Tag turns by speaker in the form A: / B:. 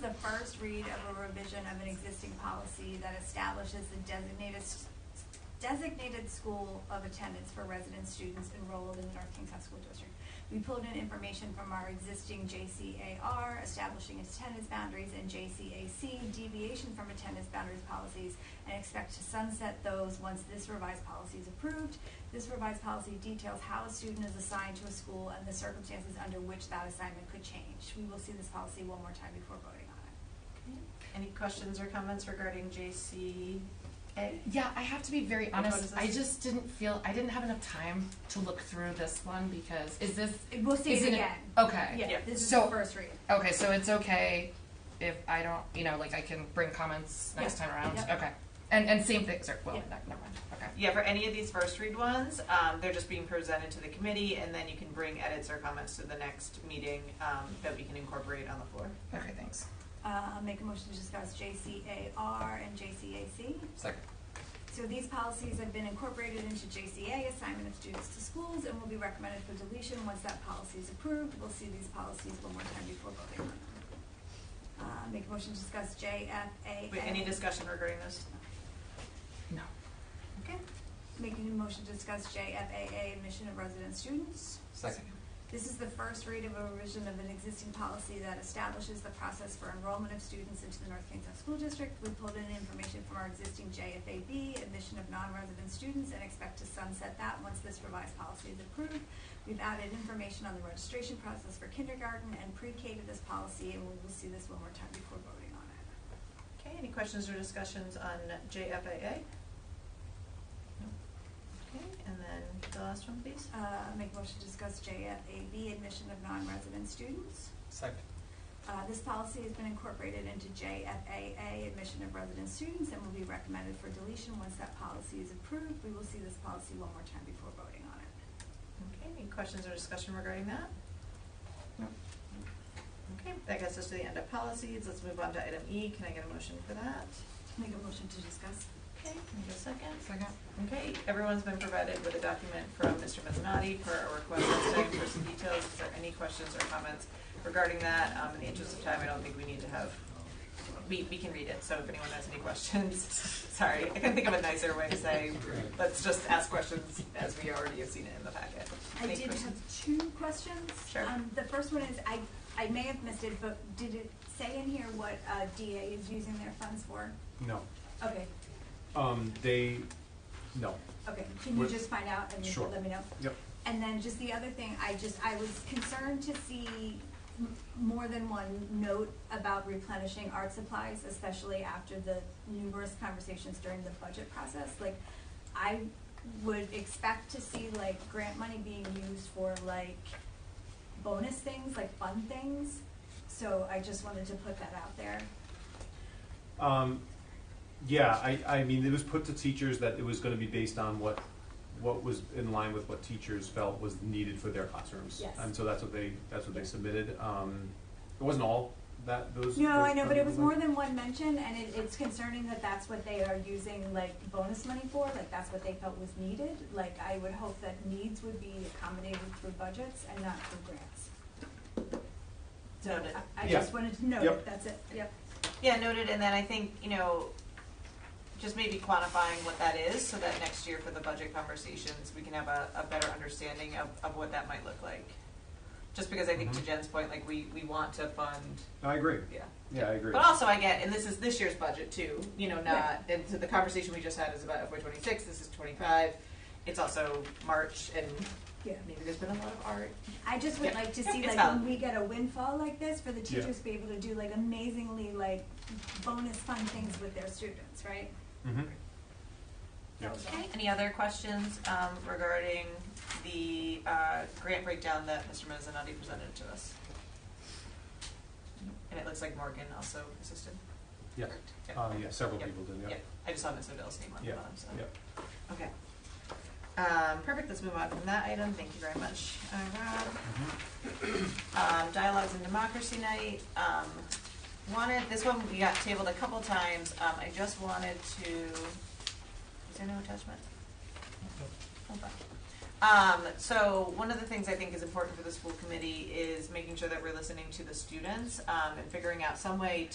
A: first read of a revision of an existing policy that establishes the designated, s- designated school of attendance for resident students enrolled in the North Kingstown School District. We pulled in information from our existing JCAR, establishing attendance boundaries, and JCAC, deviation from attendance boundaries policies, and expect to sunset those once this revised policy is approved. This revised policy details how a student is assigned to a school and the circumstances under which that assignment could change. We will see this policy one more time before voting on it.
B: Any questions or comments regarding JC? A?
C: Yeah, I have to be very
B: Which one
C: honest.
B: is
C: I
B: this?
C: just didn't feel I didn't have enough time to look through this one because is this
A: It- We'll see
C: is
A: it
C: it-
A: again.
C: okay?
A: Yeah,
B: Yeah.
A: this is
C: So-
A: the first read.
C: Okay, so it's okay if I don't, you know, like I can bring comments next
A: Yeah.
C: time around.
A: Yeah.
C: Okay, and and same things are well,
B: Yeah.
C: ne- never mind. Okay.
B: Yeah, for any of these first read ones, um, they're just being presented to the committee and then you can bring edits or comments to the next meeting, um, that we can incorporate on the floor.
C: Okay, thanks.
A: Uh, I'll make a motion to discuss JCAR and JCAC.
C: Second.
A: So these policies have been incorporated into JCA, assignment of students to schools, and will be recommended for deletion once that policy is approved. We'll see these policies one more time before voting on them. Uh, make a motion to discuss JFAA.
B: Wait, any discussion regarding this?
C: No.
B: Okay.
A: Making a motion to discuss JFAA, admission of resident students.
D: Second.
A: This is the first read of a revision of an existing policy that establishes the process for enrollment of students into the North Kingstown School District. We pulled in information from our existing JFAB, admission of non-resident students, and expect to sunset that once this revised policy is approved. We've added information on the registration process for kindergarten and pre-K to this policy, and we will see this one more time before voting on it.
B: Okay, any questions or discussions on JFAA? No. Okay, and then the last one, please.
A: Uh, make a motion to discuss JFAB, admission of non-resident students.
D: Second.
A: Uh, this policy has been incorporated into JFAA, admission of resident students, and will be recommended for deletion once that policy is approved. We will see this policy one more time before voting on it.
B: Okay, any questions or discussion regarding that?
C: No.
B: Okay, that gets us to the end of policies. Let's move on to item E. Can I get a motion for that?
A: Make a motion to discuss.
B: Okay, can I get a second?
C: Second.
B: Okay, everyone's been provided with a document from Mr. Mezzanotte for a request last time for some details. Is there any questions or comments regarding that? Um, in the interest of time, I don't think we need to have, we, we can read it, so if anyone has any questions, sorry, I couldn't think of a nicer way to say, let's just ask questions as we already have seen it in the packet.
A: I
B: Any
A: did have
B: questions?
A: two questions.
B: Sure.
A: Um, the first one is, I, I may have missed it, but did it say in here what, uh, DA is using their funds for?
E: No,
A: Okay,
E: um, they, no,
A: okay, can you
E: What-
A: just find out and
E: Sure.
A: let me know?
E: yep,
A: And then just the other thing, I just, I was concerned to see m- more than one note about replenishing art supplies, especially after the numerous conversations during the budget process. Like, I would expect to see like grant money being used for like bonus things, like fun things. So I just wanted to put that out there.
E: um, yeah, I, I mean, it was put to teachers that it was gonna be based on what, what was in line with what teachers felt was needed for their classrooms.
A: Yes.
E: And so that's what they, that's what they submitted, um, it wasn't all that, those.
A: No,
E: those
A: I know, but it was more
E: kinds of-
A: than one mention, and it, it's concerning that that's what they are using, like, bonus money for, like, that's what they felt was needed. Like, I would hope that needs would be accommodated through budgets and not through grants. So,
B: Noted.
A: I, I
E: Yeah.
A: just wanted to note,
E: Yep.
A: it. that's it, yep.
B: Yeah, noted, and then I think, you know, just maybe quantifying what that is, so that next year for the budget conversations, we can have a, a better understanding of, of what that might look like. Just because I think to
E: Mhm.
B: Jen's point, like, we, we want to fund,
E: I agree,
B: yeah.
E: yeah, I agree.
B: But also I get, and this is this year's budget too, you know,
A: Right.
B: not, and so the conversation we just had is about FY twenty-six, this is twenty-five. It's also March, and
A: Yeah.
B: maybe there's been a lot of art.
A: I just would
B: Yeah.
A: like to
B: Yep,
A: see,
B: it's
A: like,
B: valid.
A: when we get a windfall like this, for the
E: Yeah.
A: teachers to be able to do, like, amazingly, like, bonus fun things with their students, right?
E: Mhm. Yeah.
B: Okay, any other questions um, regarding the uh, grant breakdown that Mr. Mezzanotte presented to us? And it looks like Morgan also assisted.
E: Yeah.
B: correct?
E: Uh, yeah, several
B: Yep.
E: people did, yeah.
B: Yeah, I just saw Ms. Odell's name on the
E: Yeah,
B: bottom, so.
E: yeah.
B: Okay. Um, Perfect, let's move on from that item, thank you very much, uh, Rob.
E: Mm-hmm.
B: Um, Dialogues and Democracy Night, um, wanted, this one we got tabled a couple times, um, I just wanted to, is there no attachment? Hold on. Um, so one of the things I think is important for the school committee is making sure that we're listening to the students, um, and figuring out some way